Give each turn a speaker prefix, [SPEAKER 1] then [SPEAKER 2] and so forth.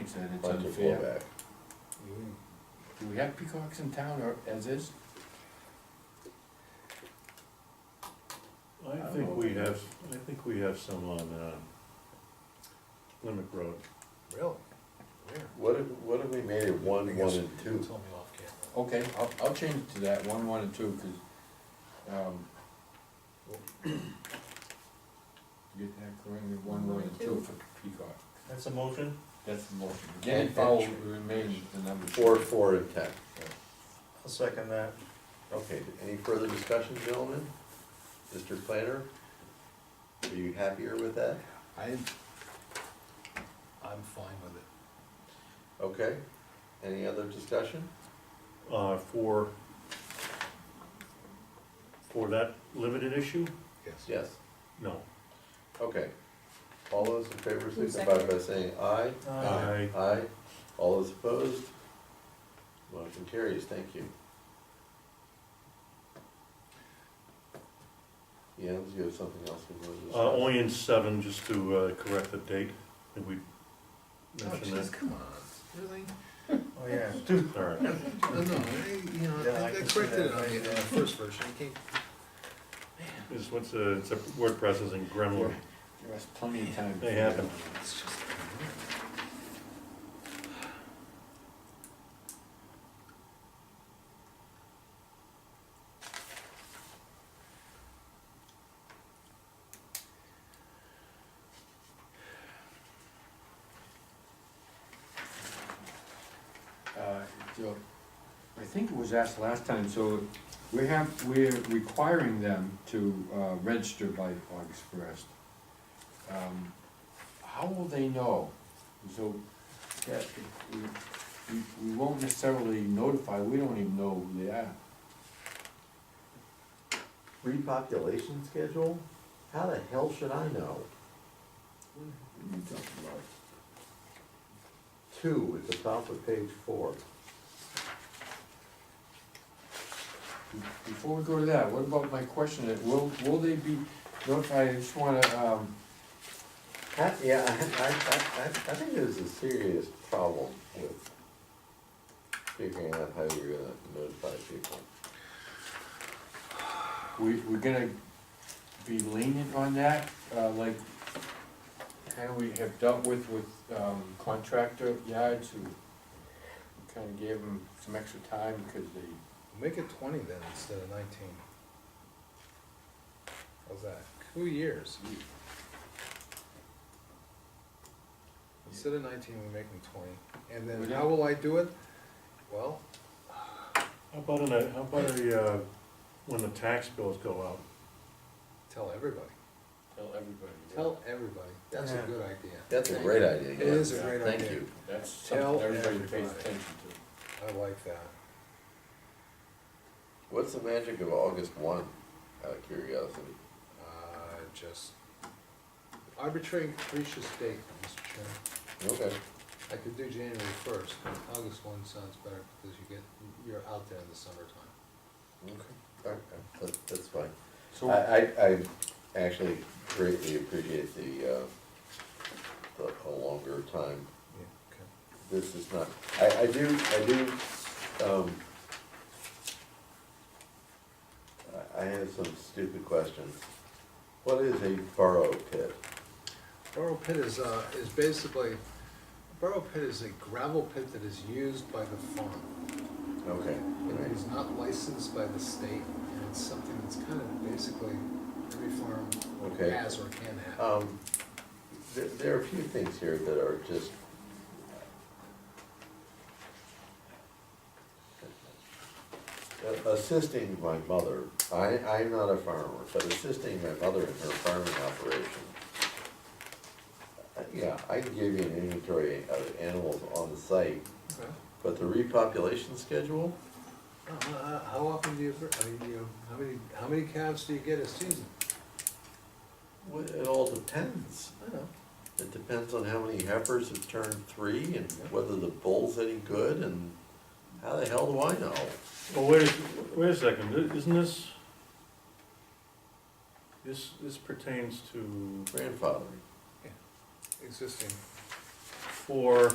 [SPEAKER 1] He said it's
[SPEAKER 2] Bunch of
[SPEAKER 1] unfair.
[SPEAKER 2] blowback.
[SPEAKER 1] Do we have peacocks in town or as is?
[SPEAKER 3] I think we have, I think we have some on, um, Limerick Road.
[SPEAKER 4] Really? Where?
[SPEAKER 2] What if, what if we made it one,
[SPEAKER 4] I
[SPEAKER 2] one
[SPEAKER 4] guess
[SPEAKER 2] and
[SPEAKER 4] You
[SPEAKER 2] two?
[SPEAKER 4] told me off camera.
[SPEAKER 1] Okay, I'll, I'll change it to that, one, one and two, cause, um. Get that going, with one, one and two for peacock,
[SPEAKER 5] That's a motion?
[SPEAKER 1] that's the motion, again, follow, remain the number.
[SPEAKER 2] Four, four and ten.
[SPEAKER 5] I'll second that.
[SPEAKER 2] Okay, any further discussion, gentlemen? Mr. Planner? Are you happier with that?
[SPEAKER 1] I,
[SPEAKER 4] I'm fine with it.
[SPEAKER 2] Okay, any other discussion?
[SPEAKER 3] Uh, for, for that limited issue?
[SPEAKER 4] Yes.
[SPEAKER 2] Yes,
[SPEAKER 3] No.
[SPEAKER 2] okay. All those in favor
[SPEAKER 6] Who
[SPEAKER 2] signify by
[SPEAKER 6] seconded?
[SPEAKER 2] saying aye.
[SPEAKER 3] Aye.
[SPEAKER 2] Aye, all those opposed? Motion carries, thank you. Jens, you have something else you wanted to discuss?
[SPEAKER 3] Uh, only in seven, just to, uh, correct the date, did we
[SPEAKER 4] Oh,
[SPEAKER 3] mention
[SPEAKER 4] jeez,
[SPEAKER 3] that?
[SPEAKER 4] come on, really?
[SPEAKER 5] Oh, yeah.
[SPEAKER 3] All right,
[SPEAKER 4] No, no, I, you know,
[SPEAKER 5] Yeah, I
[SPEAKER 4] I I
[SPEAKER 5] can see
[SPEAKER 4] corrected it
[SPEAKER 5] that.
[SPEAKER 4] on the uh, first version, it came,
[SPEAKER 3] it's, what's a, it's a word processing gremlin,
[SPEAKER 1] there was plenty of time.
[SPEAKER 3] they happen.
[SPEAKER 4] it's just.
[SPEAKER 1] Uh, so, I think it was asked last time, so we have, we're requiring them to, uh, register by August first. Um, how will they know? So, that, we, we- we won't necessarily notify, we don't even know who they are.
[SPEAKER 2] repopulation schedule? How the hell should I know?
[SPEAKER 1] What are you talking about?
[SPEAKER 2] Two at the top of page four.
[SPEAKER 1] Before we go to that, what about my question, that will, will they be notified, I just wanna, um,
[SPEAKER 2] That- yeah, I, I, I, I think there's a serious problem with figuring out how you're gonna notify people.
[SPEAKER 1] we, we're gonna be lenient on that, uh, like, kinda we have dealt with, with, um, contractor yards who kinda gave them some extra time because they,
[SPEAKER 4] Make it twenty then instead of nineteen. How's that? Two years. Instead of nineteen, we make them twenty, and then how will I do it? Well,
[SPEAKER 3] How about in a, how about a, uh, when the tax bills go out?
[SPEAKER 4] tell everybody,
[SPEAKER 1] tell everybody. yeah.
[SPEAKER 4] tell everybody, that's a good idea.
[SPEAKER 2] That's a great idea,
[SPEAKER 4] It
[SPEAKER 2] yeah.
[SPEAKER 4] is a great
[SPEAKER 2] Thank
[SPEAKER 4] idea.
[SPEAKER 2] you.
[SPEAKER 1] That's
[SPEAKER 4] tell
[SPEAKER 1] something everybody pays
[SPEAKER 4] everybody.
[SPEAKER 1] attention to.
[SPEAKER 4] I like that.
[SPEAKER 2] What's the magic of August one, out of curiosity?
[SPEAKER 4] Uh, just arbitrary and capricious date, Mr. Chairman.
[SPEAKER 2] Okay,
[SPEAKER 4] I could do January first, August one sounds better because you get, you're out there in the summertime.
[SPEAKER 2] okay, okay, that, that's fine. I,
[SPEAKER 1] So,
[SPEAKER 2] I, I actually greatly appreciate the, uh, the, a longer time
[SPEAKER 4] Yeah, okay.
[SPEAKER 2] this is not, I, I do, I do, um, I, I have some stupid questions. What is a burrow pit?
[SPEAKER 4] Burrow pit is, uh, is basically, burrow pit is a gravel pit that is used by the farm.
[SPEAKER 2] Okay,
[SPEAKER 4] It
[SPEAKER 2] right,
[SPEAKER 4] is not licensed by the state, and it's something that's kind of basically every farm
[SPEAKER 2] Okay.
[SPEAKER 4] has or can have.
[SPEAKER 2] um, there, there are a few things here that are just. A- uh, Assisting my mother, I, I'm not a farmer, but assisting my mother in her farming operation. Uh, Yeah, I can give you an inventory of animals on the site,
[SPEAKER 4] Okay.
[SPEAKER 2] but the repopulation schedule,
[SPEAKER 4] Uh, uh, How often do you, I mean, you, how many, how many calves do you get a season?
[SPEAKER 2] well, it all depends.
[SPEAKER 4] I know.
[SPEAKER 2] It depends on how many heifers have turned three and whether the bull's any good and how the hell do I know?
[SPEAKER 3] Well, Oh, wait, a- wait a second, i- isn't this, this, this pertains to
[SPEAKER 2] Grandfather.
[SPEAKER 4] Existing.
[SPEAKER 3] for